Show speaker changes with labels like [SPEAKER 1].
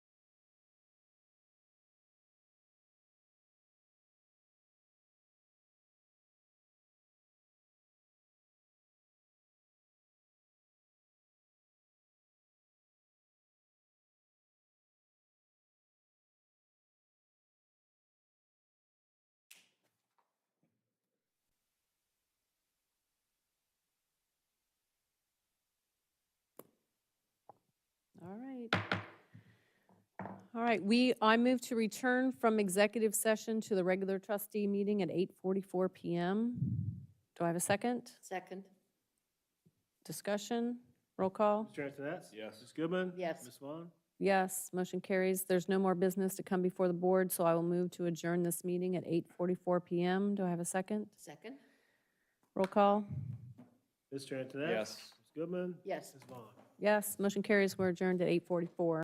[SPEAKER 1] All right. All right, we, I move to return from executive session to the regular trustee meeting at 8:44 PM. Do I have a second?
[SPEAKER 2] Second,
[SPEAKER 1] Discussion? Roll call?
[SPEAKER 3] Mr. Antoinette?
[SPEAKER 4] Yes.
[SPEAKER 3] Ms. Goodman?
[SPEAKER 2] Yes.
[SPEAKER 3] Ms. Vaughn?
[SPEAKER 1] Yes, motion carries. There's no more business to come before the board, so I will move to adjourn this meeting at 8:44 PM. Do I have a second?
[SPEAKER 2] second,
[SPEAKER 1] Roll call?
[SPEAKER 3] Mr. Antoinette?
[SPEAKER 4] Yes.
[SPEAKER 3] Ms. Goodman?
[SPEAKER 2] yes.
[SPEAKER 3] Ms. Vaughn?
[SPEAKER 1] Yes, motion carries. We're adjourned at 8:44.